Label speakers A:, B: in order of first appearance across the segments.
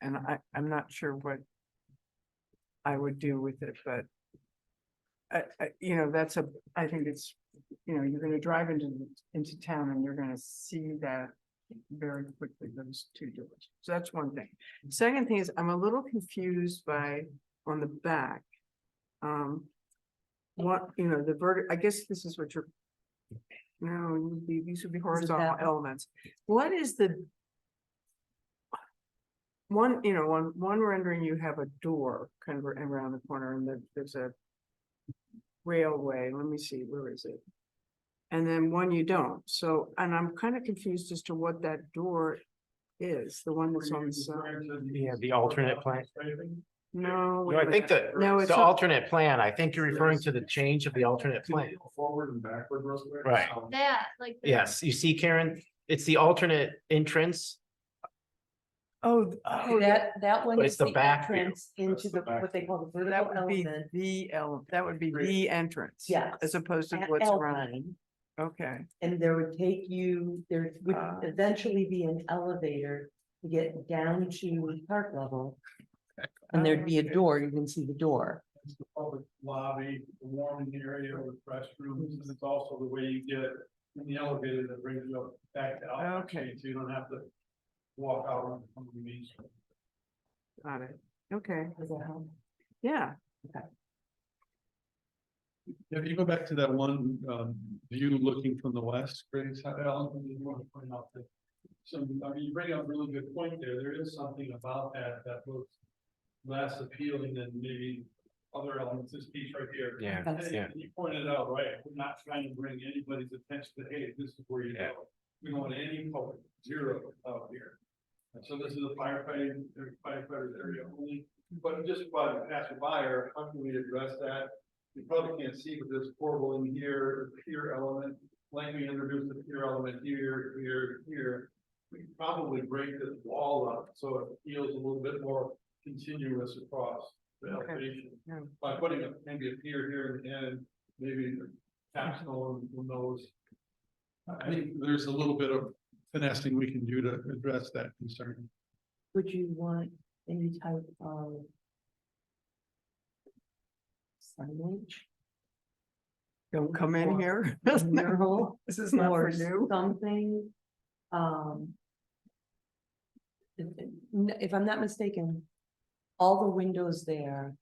A: and I, I'm not sure what I would do with it, but I, I, you know, that's a, I think it's, you know, you're gonna drive into, into town and you're gonna see that very quickly, those two doors. So that's one thing. Second thing is, I'm a little confused by, on the back. Um, what, you know, the verti, I guess this is what you're, no, it would be- these would be horizontal
B: that-
A: elements. What is the one, you know, one, one rendering, you have a door kind of around the corner and there- there's a railway, let me see, where is it? And then one you don't, so, and I'm kind of confused as to what that door is, the one that's on the side.
C: Yeah, the alternate plan.
A: No. wait
C: No,
A: a
C: I think
A: minute.
C: the,
A: No, it's
C: the
A: not-
C: alternate plan, I think you're referring to the change of the alternate plan.
D: Forward and backward real quick.
C: Right.
D: Um,
E: That, like. the-
C: Yes, you see Karen, it's the alternate entrance,
A: Oh, th- oh, yeah,
B: That, that one
C: But
B: is
C: it's the
B: the
C: back view.
B: entrance into
D: That's the
B: the,
D: back
B: what they call the
A: that
B: vertical
A: would be
B: element.
A: the ele, that would be
D: Great.
A: the entrance.
B: Yes.
A: As opposed to
B: at
A: what's around,
B: Alpine,
A: okay,
B: And there would take you, there would
A: Ah.
B: eventually be an elevator to get down to park level. And there'd be a
D: Okay.
B: door, you can see the door.
D: It's the public lobby, the warming area with restrooms, and it's also the way you get in the elevator that brings you up back to Alpine
A: Okay.
D: Street, so you don't have to walk out on on the main street.
A: got it, okay,
B: Does that help?
A: yeah,
D: If you go back to that one, um, view looking from the west, Grace, how, Alan, you want to point out that. So, I mean, you bring up a really good point there, there is something about that that looks less appealing than maybe other elements, this piece right here.
C: yeah,
B: That's-
C: yeah.
D: And You pointed out, right, we're not trying to bring anybody's attention to, hey, this is where you
C: Yeah.
D: go. We don't want any public, zero out here. And so this is a firefighting, firefighters area only, but just by the passerby, or how can we address that? You probably can't see, but this portal in here, pier element, like we introduced the pier element here, here, here. We could probably break this wall up, so it feels a little bit more continuous across the
A: Okay.
D: elevation
A: yeah,
D: by putting a, maybe a pier here and then maybe a capstone, who knows? I think there's a little bit of finessing we can do to address that concern.
B: Would you want any type of signage?
A: don't come in
B: Or-
A: here.
B: mural
A: This is not for
B: or
A: you.
B: something, um. If, if I'm not mistaken, all the windows there.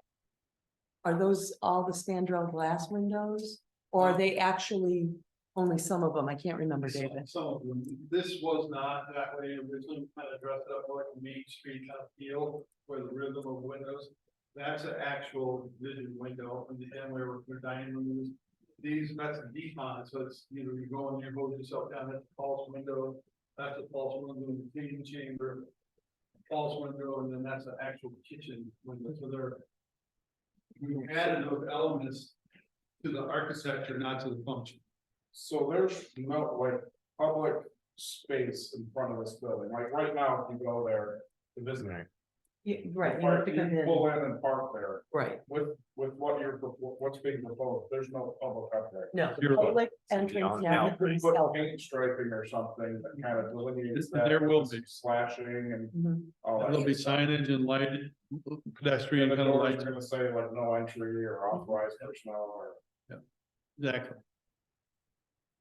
B: Are those all the standard glass windows, or are they actually only some of them? I can't remember, David.
D: Some of them, this was not that way originally, kind of dressed up like a main street kind of feel where the rhythm of windows. That's an actual vision window in the end where we're dining rooms. These, that's a decon, so it's, you know, you go in, you hold yourself down at the false window, that's a false window in the feeding chamber. False window, and then that's an actual kitchen window, so there. We added those elements to the architecture, not to the function.
F: So there's no like public space in front of this building, like right now, if you go there, the business.
C: Right.
B: Yeah,
F: the park, you Pull in and park there,
B: right,
F: with, with what you're, propo- what's being proposed, there's no public up there.
B: no,
D: You're-
B: public
C: on-
B: entrance
C: now,
B: now.
F: Put
B: becomes out.
F: paint striping or something that kind of
D: This-
F: delineates that.
D: there will
F: with
D: be.
F: Slashing and
B: Mhm.
F: all that.
D: There'll be signage and light, pedestrian
F: And the
D: kind of
F: door's
D: lights,
F: gonna say like no entry or authorized personnel or.
D: exactly.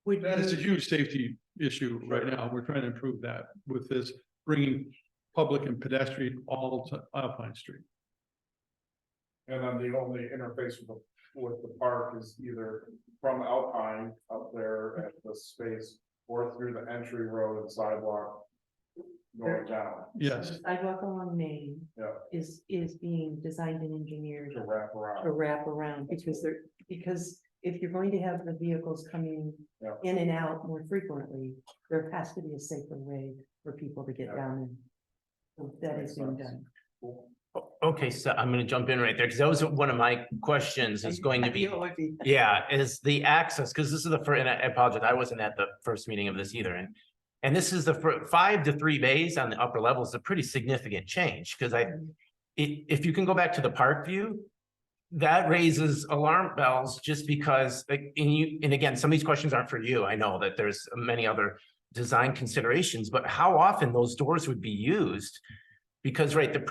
B: Would
D: That is a
B: you-
D: huge safety issue right now. We're trying to improve that with this, bringing public and pedestrian all to Alpine Street.
F: And then the only interface with the, with the park is either from Alpine up there at the space or through the entry road and sidewalk. Going down
D: Yes,
B: the Sidewalk along Main.
F: Yeah.
B: Is, is being designed and engineered
F: to wrap
B: to
F: around.
B: wrap around because they're, because if you're going to have the vehicles coming
F: Yeah.
B: in and out more frequently, there has to be a safer way for people to get
F: Yeah.
B: down and so that is being done.
C: O- Okay, so I'm gonna jump in right there, because that was one of my questions is going to be,
B: Ideal would be-
C: yeah, is the access, because this is the first, and I apologize, I wasn't at the first meeting of this either, and and this is the fir- five to three bays on the upper level is a pretty significant change, because I i- if you can go back to the park view, that raises alarm bells just because, like, and you, and again, some of these questions aren't for you. I know that there's many other design considerations, but how often those doors would be used? Because, right, the